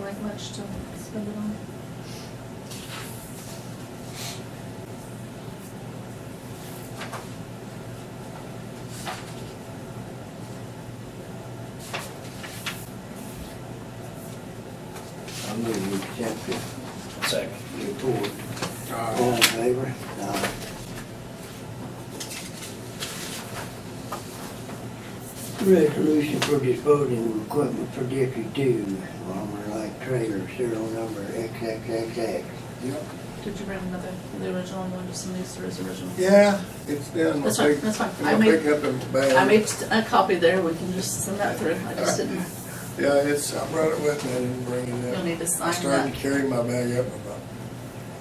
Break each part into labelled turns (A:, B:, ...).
A: much to spend it on.
B: I move we accept the
C: Second.
B: report. All in favor? Aye. Resolution for disposing of equipment for District Two, armor light trailer, serial number XXXX.
D: Yep.
A: Did you bring another, the original one, just in these, there's original?
D: Yeah, it's down.
A: That's fine, that's fine. I
D: I
A: made-
D: pick up in the bag.
A: I made a copy there, we can just send that through, I just didn't,
D: Yeah, it's, I brought it with me, I didn't bring it up.
A: You'll need to sign
D: I started
A: that.
D: to carry my bag up, and I thought,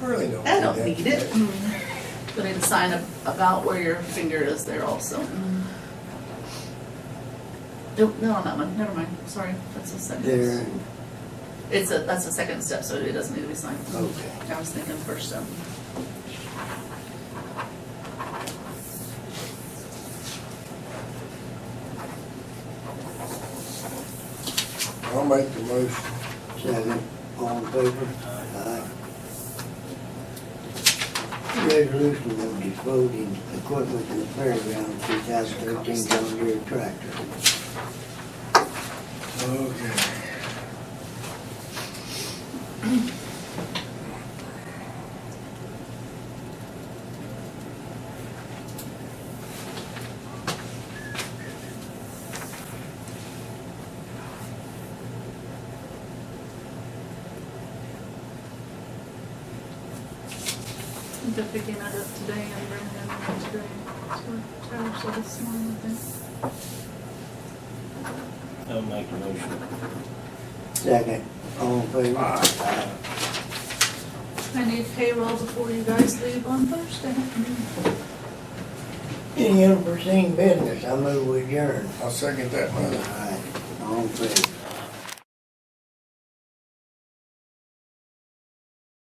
D: I really don't.
A: I don't
D: need
A: need
D: that
A: it.
D: today.
A: You'll need to sign ab- about where your finger is there also. Nope, no, on that one, never mind, sorry, that's the
B: There,
A: second. It's a, that's the second step, so it doesn't need to be signed.
B: Okay.
A: I was thinking first step.
D: I'll make the motion.
B: second, all in favor? Aye. Resolution of disposing equipment in the fairground, two thousand thirteen John Deere tractor.
D: Okay.
A: I'm just picking that up today and bringing it in today. So, Tyler said this morning, I think.
C: I'll make a motion.
B: Second, all in favor?
D: Aye.
B: Aye.
A: I need payroll before you guys leave on Thursday.
B: Any unforeseen business, I move we adjourn.
D: I'll second that motion.
B: All right, all in favor?